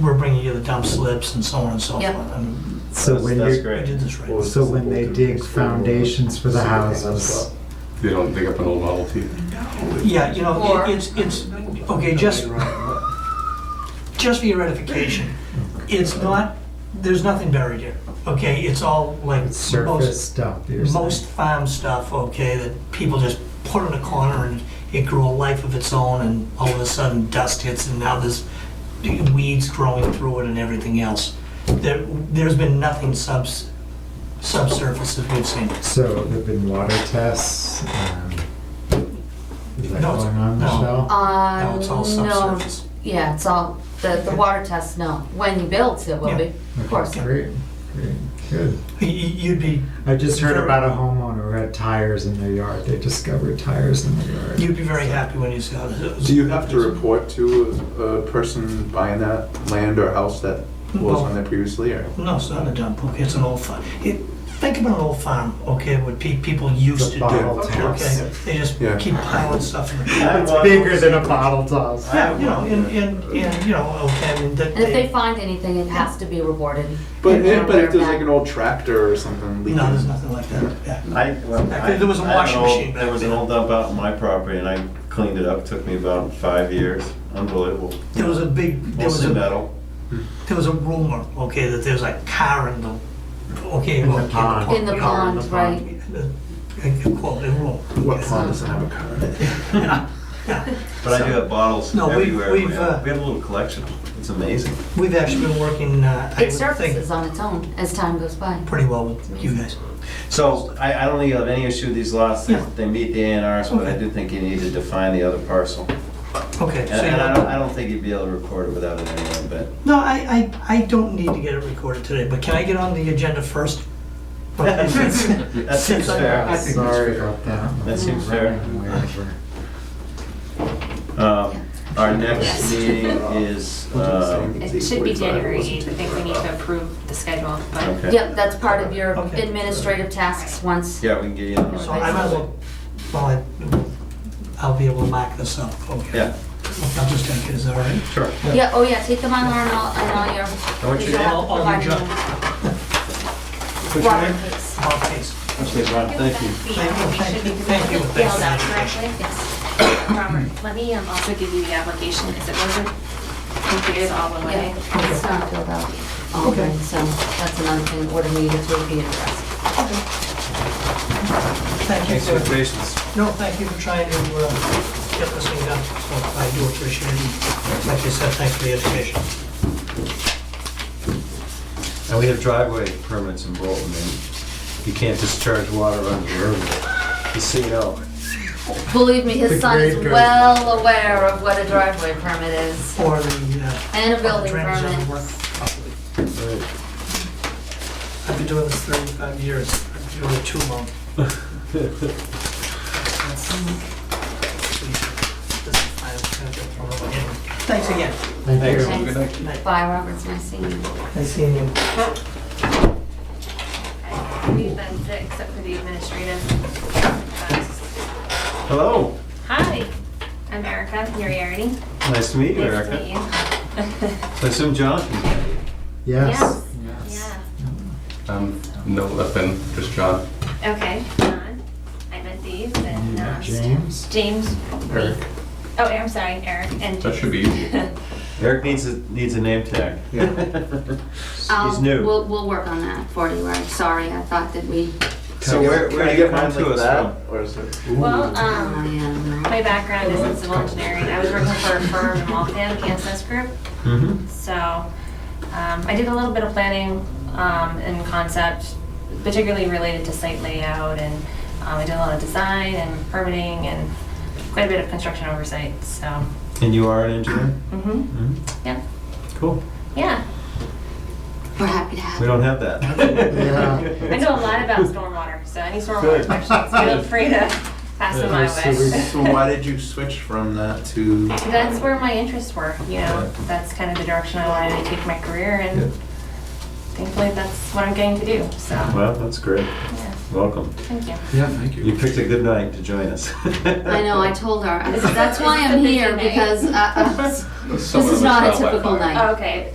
we're bringing you the dump slips and so on and so Yep. forth. And So when That's you, we great. did this right. Well, so when they dig foundations for the houses, They don't dig up an old Model T. Yeah, you know, Or- it- it's, it's, okay, just, just for your ratification, it's not, there's nothing buried here, okay? It's all like it's most, surface dump, you're saying? most farm stuff, okay, that people just put in a corner and it grew a life of its own and all of a sudden dust hits and now there's weeds growing through it and everything else. There, there's been nothing subs, subsurface that we've seen. So there've been water tests, um, is that No, it's- going on, no. Michelle? Uh, Now it's all no, subsurface. yeah, it's all, the, the water test, no. When he builds, it will be, of course. Okay, Great, great, good. Y- y- You'd be, I just heard about a homeowner who had tires in their yard, they discovered tires in their yard. you'd be very happy when you saw this. Do you have to report to a a person buying that land or house that was on there previously, or? No, it's not a dump, okay, it's an old farm. It, think about an old farm, okay, what pe- people It's used a to do. bottle okay. toss. Okay, they just Yeah. keep piling stuff in the That's It's bigger than a bottle toss. Yeah, you know, and, and, and, you know, okay, I mean, that And if they they, find anything, it has to be rewarded. But, Yeah, but they're if there's like back. an old tractor or something leaking. no, there's nothing like that, yeah. I, well, Back I. then, there was a I had washing an old- machine back There was an then. old dump out on my property and I cleaned it up, took me about five years, unbelievable. There was a big, there was Mostly a, metal. there was a rumor, okay, that there's a car in the, okay. In the okay, pond. In the pond, right. right. Quote, a rumor. What okay. pond doesn't have a car in it? But I do have bottles No, we've- everywhere. we've, man. uh, We have a little collection. It's amazing. We've actually been working, uh, I It would think, surfaces on its own as time goes by. pretty well with you guys. So I, I don't think you have any issue with these lots. They, Yeah. they meet the A and Rs, but I Okay. do think you need to define the other parcel. Okay, And, so and uh, I you don't, I don't think you'd be able to record it without it anyway, but. No, I, I, I don't need to get it recorded today, but can I get on the agenda first? Okay, since- That seems fair. think that's Sorry fair. about that. That seems fair. Wherever. Um, Our next Yes. meeting is, um, It should be January 8th. I think we need to approve the schedule, but okay. Yep, that's part of your Okay. administrative tasks once. Yeah, we can get you on. So I might as well, well, I- I'll be able to mark this up, okay? Yeah, I'll just take it, is that all right? sure. Yeah, oh yeah, take them on and all, and all your. I want you to- All- all your junk. Water case. All case. Okay, Ron, thank you. Thank you, thank you, spelled out thank you. correctly. Robert, let me um, also give you the application, because it wasn't completed all the way. Yeah, it's not filled out. Okay. Um, So that's another thing that would have needed to be addressed. Thank you Thanks for your for, patience. no, thank you for trying to, uh, get this thing done, so I do appreciate it. Like you said, thanks for the education. And we have driveway permits in Bolton, and you can't discharge water under the road. The CO. Believe me, The his son is grade goes- well aware of what a driveway permit is For the, uh, and a building Drainage doesn't work permit. properly. I've been doing this 35 years, I've been doing it too long. Thanks again. Thank you. Thanks. night. Bye, Robert, it's nice seeing you. Nice seeing you. I believe that's it, except for the administrative. tasks. Hello, Hi, I'm Erica Uriarty. nice to meet you, Nice to Erica. meet you. I assume John can hear you. Yes. Yeah, Um, no, nothing, just John. okay, John, I met these, and Yeah, uh, James? James. Eric. Oh, I'm sorry, Eric and. That should be easy. Eric needs a, needs a name tag. He's I'll- new. Um, We'll, we'll work on that for you, Rob. Sorry, I thought that we, So where, Can where I do you get come mine to like us that, from? or is it? Well, oh um, yeah, no. my background is in civil engineering. I was working for a firm in Waltham, Kansas Group. Mhm. So um, I did a little bit of planning um, and concept, particularly related to site layout, and um, I did a lot of design and permitting and quite a bit of construction oversight. So, And you are an engineer? mhm. Mhm. yeah, Cool. yeah. We're happy to have We you. don't have that. I know a lot about stormwater, so any stormwater Good. questions, feel free to pass them my so we- way. So why did you switch from that to? That's where my interests were, you know, that's kind of the direction I wanted to take my career Yeah. and thankfully that's what I'm getting to do, so, Well, that's great. yeah, Welcome. thank you. Yeah, thank You picked a good night to join us. I know, I told her. I said, that's why I'm here, because uh, uh, This this is not a typical night. Okay,